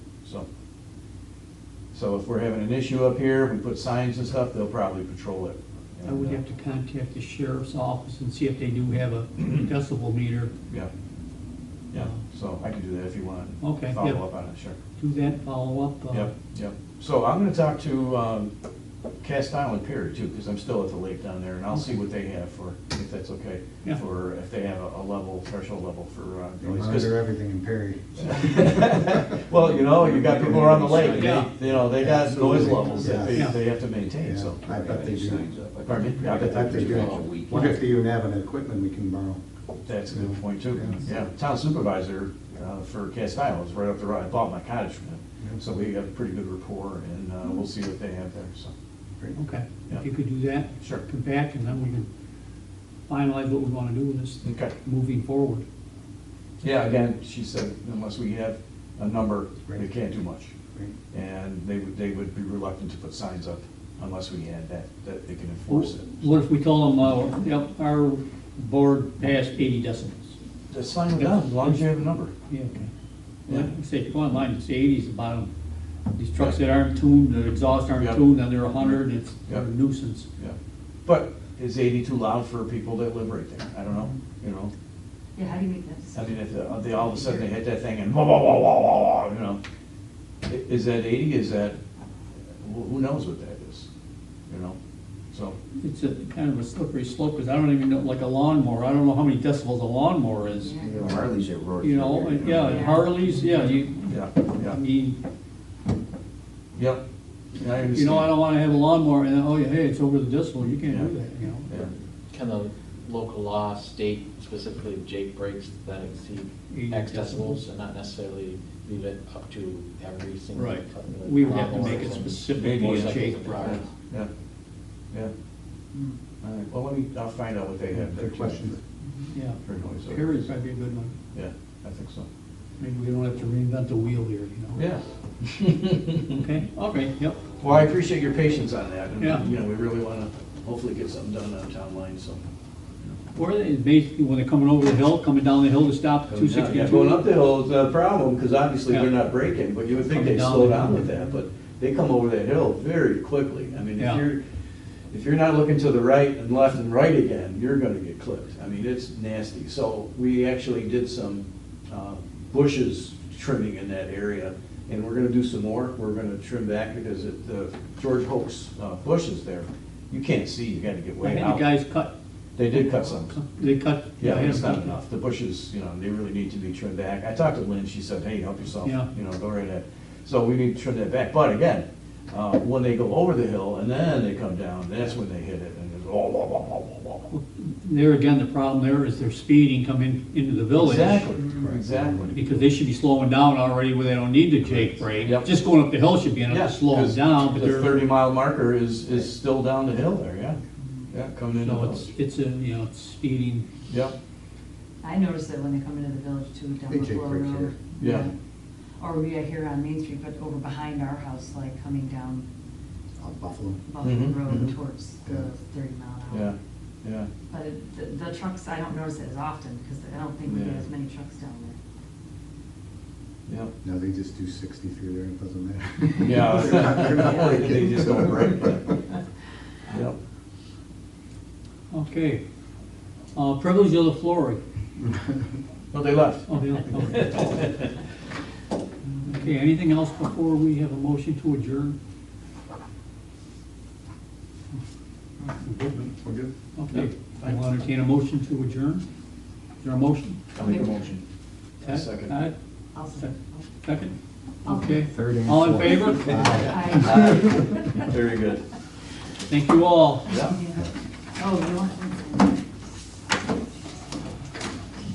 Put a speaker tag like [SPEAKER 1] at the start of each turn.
[SPEAKER 1] so. So if we're having an issue up here, we put signs and stuff, they'll probably patrol it. uh,
[SPEAKER 2] I would have to contact the sheriff's office and see if they do have a decibel meter.
[SPEAKER 1] Yeah, yeah, so I can do that if you want.
[SPEAKER 2] Okay, yeah.
[SPEAKER 1] Follow up on it, sure.
[SPEAKER 2] Do that, follow up. uh,
[SPEAKER 1] Yep, yep. So I'm gonna talk to, um, Cast Island Pier too, because I'm still at the lake down there, and I'll see what they have for, if that's okay.
[SPEAKER 2] Yeah.
[SPEAKER 1] For, if they have a a level, threshold level for, uh,
[SPEAKER 3] They
[SPEAKER 1] noise, 'cause-
[SPEAKER 3] monitor everything in Perry.
[SPEAKER 1] Well, you know, you got people around the lake,
[SPEAKER 2] Yeah.
[SPEAKER 1] they, you know, they got noise levels that they,
[SPEAKER 2] Yeah.
[SPEAKER 1] they have to maintain, so.
[SPEAKER 3] I bet they do.
[SPEAKER 1] Pardon me?
[SPEAKER 3] I bet they do. What if they even have an equipment we can borrow?
[SPEAKER 1] That's a good point too,
[SPEAKER 3] Yeah.
[SPEAKER 1] yeah. Town supervisor, uh, for Cast Island was right up the road, I bought my cottage from him, so we have a pretty good rapport, and, uh, we'll see what they have there, so.
[SPEAKER 2] Okay,
[SPEAKER 1] Yeah.
[SPEAKER 2] if you could do that.
[SPEAKER 1] Sure.
[SPEAKER 2] Come back and then we can finalize what we want to do with this
[SPEAKER 1] Okay.
[SPEAKER 2] moving forward.
[SPEAKER 1] Yeah, again, she said unless we have a number, they
[SPEAKER 3] Right.
[SPEAKER 1] can't do much.
[SPEAKER 3] Right.
[SPEAKER 1] And they would, they would be reluctant to put signs up unless we had that, that they can enforce it.
[SPEAKER 2] What if we told them, uh, yep, our board passed eighty decibels?
[SPEAKER 1] Just sign it down, as long as you have a number.
[SPEAKER 2] Yeah, okay.
[SPEAKER 1] Yeah.
[SPEAKER 2] Like I said, if you go online, it's eighties the bottom. These trucks that aren't tuned, the exhaust aren't
[SPEAKER 1] Yep.
[SPEAKER 2] tuned, and they're a hundred, and it's
[SPEAKER 1] Yep.
[SPEAKER 2] a nuisance.
[SPEAKER 1] Yeah. But is eighty too loud for people that live right there? I don't know, you know?
[SPEAKER 4] Yeah, how do you make that
[SPEAKER 1] I
[SPEAKER 4] decision?
[SPEAKER 1] mean, if uh, they, all of a sudden they hit that thing and wah, wah, wah, wah, wah, wah, you know? I- Is that eighty, is that, who who knows what that is, you know? So,
[SPEAKER 2] It's a kind of a slippery slope, because I don't even know, like a lawnmower, I don't know how many decibels a lawnmower is.
[SPEAKER 4] Yeah.
[SPEAKER 5] Harley's at Roy.
[SPEAKER 2] You know, and, yeah, and Harleys, yeah, you,
[SPEAKER 1] yeah,
[SPEAKER 2] I
[SPEAKER 1] yeah,
[SPEAKER 2] mean,
[SPEAKER 1] yep. Yeah, I
[SPEAKER 2] you know, I
[SPEAKER 1] understand.
[SPEAKER 2] don't wanna have a lawnmower, and, oh, yeah, hey, it's over the decibel, you can't do
[SPEAKER 1] Yeah.
[SPEAKER 2] that, you know?
[SPEAKER 1] Yeah.
[SPEAKER 6] Kind of local law, state specifically, Jake breaks that exceed
[SPEAKER 2] Eighty
[SPEAKER 6] X
[SPEAKER 2] decibels.
[SPEAKER 6] decibels and not necessarily leave it up to every single.
[SPEAKER 2] Right,
[SPEAKER 6] cut-
[SPEAKER 2] we would have to
[SPEAKER 6] lawnmower
[SPEAKER 2] make it
[SPEAKER 6] and
[SPEAKER 2] specific
[SPEAKER 1] Maybe,
[SPEAKER 2] to
[SPEAKER 1] yeah.
[SPEAKER 2] a Jake Mm-hmm.
[SPEAKER 1] Yeah,
[SPEAKER 2] product.
[SPEAKER 1] yeah, yeah. All right, well, let me, I'll find out what they have. there,
[SPEAKER 3] Good
[SPEAKER 1] too,
[SPEAKER 3] question.
[SPEAKER 2] Yeah,
[SPEAKER 1] For noise.
[SPEAKER 2] Perry's might be a good one,
[SPEAKER 1] Yeah, I think so.
[SPEAKER 2] maybe we don't have to reinvent the wheel here, you know?
[SPEAKER 1] Yeah.
[SPEAKER 2] Okay, okay, yep,
[SPEAKER 1] Well, I appreciate your patience on that. and,
[SPEAKER 2] Yeah.
[SPEAKER 1] You know, we really want to hopefully get something done on town line, so.
[SPEAKER 2] or they, basically, when they're coming over the hill, coming down the hill to stop at two
[SPEAKER 1] Yeah,
[SPEAKER 2] sixty-two.
[SPEAKER 1] Going up the uh, hill is a problem, because obviously
[SPEAKER 2] Yeah.
[SPEAKER 1] they're not braking, but you would think
[SPEAKER 2] Coming
[SPEAKER 1] they'd
[SPEAKER 2] down
[SPEAKER 1] slow
[SPEAKER 2] the
[SPEAKER 1] down
[SPEAKER 2] hill.
[SPEAKER 1] with that, but they come over that hill very quickly. I mean, if
[SPEAKER 2] Yeah.
[SPEAKER 1] you're, if you're not looking to the right and left and right again, you're gonna get clipped. I mean, it's nasty. So we actually did some uh, bushes trimming in that area, and we're gonna do some more. We're gonna trim back because it- the George Hoax uh, bushes there, you can't see, you gotta get
[SPEAKER 2] I
[SPEAKER 1] way
[SPEAKER 2] had the
[SPEAKER 1] out.
[SPEAKER 2] guys cut,
[SPEAKER 1] They did cut some.
[SPEAKER 2] they cut.
[SPEAKER 1] Yeah,
[SPEAKER 2] I had
[SPEAKER 1] it's
[SPEAKER 2] them
[SPEAKER 1] not
[SPEAKER 2] cut.
[SPEAKER 1] enough. The bushes, you know, they really need to be trimmed back. I talked to Lynn, she said, hey, help yourself,
[SPEAKER 2] Yeah.
[SPEAKER 1] you know, go right ahead. So we need to trim that back, but again, uh, when they go over the hill and then they come down, that's when they hit it and it's oh, wah, wah, wah, wah, wah, wah.
[SPEAKER 2] There again, the problem there is they're speeding coming into the village.
[SPEAKER 1] Exactly, exactly.
[SPEAKER 2] Because they should be slowing down already where they don't need the Jake brake.
[SPEAKER 1] Yep.
[SPEAKER 2] Just going up the hill should be enough
[SPEAKER 1] Yeah,
[SPEAKER 2] to slow them
[SPEAKER 1] 'cause
[SPEAKER 2] down, but
[SPEAKER 1] The
[SPEAKER 2] they're,
[SPEAKER 1] thirty mile marker is, is still down the hill there, yeah, yeah, coming into the
[SPEAKER 2] so it's,
[SPEAKER 1] village.
[SPEAKER 2] it's a, you know, it's speeding.
[SPEAKER 1] Yep,
[SPEAKER 4] I notice that when they come into the village too, down
[SPEAKER 3] They
[SPEAKER 4] the
[SPEAKER 3] take
[SPEAKER 4] Flow
[SPEAKER 3] breaks
[SPEAKER 4] Road.
[SPEAKER 1] here. Yeah.
[SPEAKER 4] Or we are here on Main Street, but over behind our house, like coming down
[SPEAKER 3] Out Uh, Buffalo.
[SPEAKER 4] Buffalo
[SPEAKER 1] Mhm, mhm.
[SPEAKER 4] Road towards
[SPEAKER 3] Yeah.
[SPEAKER 4] the thirty mile an
[SPEAKER 1] yeah,
[SPEAKER 4] hour.
[SPEAKER 1] yeah,
[SPEAKER 4] But it- the, the trucks, I don't notice it as often, because I don't think we get
[SPEAKER 1] Yeah.
[SPEAKER 4] as many trucks down
[SPEAKER 1] yeah.
[SPEAKER 3] No, they just do sixty through there, it doesn't matter.
[SPEAKER 1] Yeah.
[SPEAKER 3] They're not- they're not breaking.
[SPEAKER 1] They just don't break, yeah.
[SPEAKER 4] there.
[SPEAKER 1] Yep.
[SPEAKER 2] Okay. Uh, privilege of the floor.
[SPEAKER 1] No, they left.
[SPEAKER 2] Oh, yeah, okay. Okay, anything else before we have a motion to adjourn?
[SPEAKER 3] We're good?
[SPEAKER 2] Okay, I will entertain a motion to adjourn. Is there a motion?
[SPEAKER 1] I'll make a motion.
[SPEAKER 2] Ted?
[SPEAKER 1] Second.
[SPEAKER 2] Todd?
[SPEAKER 4] I'll say.
[SPEAKER 2] Second?
[SPEAKER 4] I'll-
[SPEAKER 2] Okay.
[SPEAKER 3] Third and
[SPEAKER 2] All in
[SPEAKER 3] fourth.
[SPEAKER 2] favor?
[SPEAKER 4] I-
[SPEAKER 1] Very good.
[SPEAKER 2] Thank you all.
[SPEAKER 1] Yeah.
[SPEAKER 4] Oh, you want?